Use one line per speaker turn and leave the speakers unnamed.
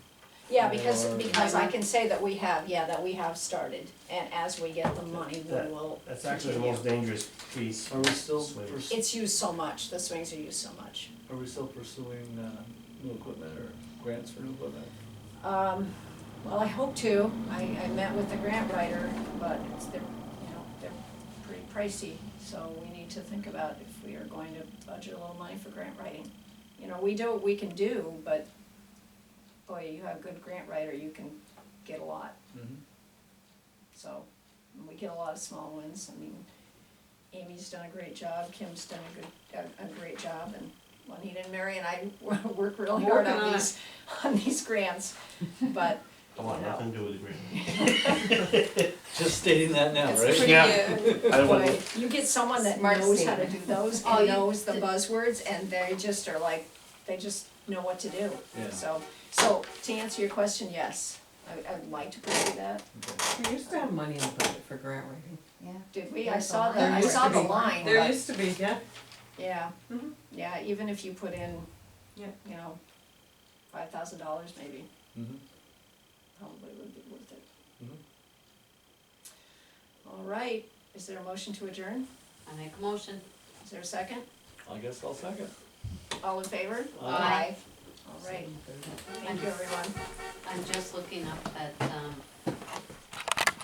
Yeah, because,
Or-
because I can say that we have, yeah, that we have started, and as we get the money, we
That-
will
That's actually the
continue.
most dangerous piece.
Are we still,
Swing.
pers-
It's used so much, the swings are used so much.
are we still pursuing, uh, new equipment or grants for new equipment?
Um, well, I hope to, I, I met with the grant writer, but it's, they're, you know, they're pretty pricey, so we need to think about if we are going to budget a little money for grant writing. You know, we do what we can do, but, boy, you have a good grant writer, you can get a lot.
Mm-hmm.
So, we get a lot of small ones, I mean, Amy's done a great job, Kim's done a good, a, a great job, and Juanita and Mary and I work really hard
Working
on
on
these, on these grants, but,
I want nothing to do with the grant.
Just stating that now,
It's
right?
pretty, uh,
I
boy,
wouldn't,
you get someone that
Smart
knows how to do
statement.
those,
Oh,
and
you-
knows the buzzwords, and they just are like, they just know what to do,
Yeah.
so, so, to answer your question, yes, I, I'd like to pursue that,
Okay.
We used to have money in the budget for grant writing.
yeah.
did we, I
There's a
saw the,
line.
I
There
saw
used
the
to
line,
be.
but.
There used to be, yeah.
Yeah,
Mhm.
yeah, even if you put in,
Yeah.
you know, five thousand dollars maybe,
Mm-hmm.
probably would be worth it.
Mhm.
All right, is there a motion to adjourn?
I make a motion.
Is there a second?
I guess I'll second.
All in favor?
Aye.
All right, thank you, everyone.
I'm just looking up at, um,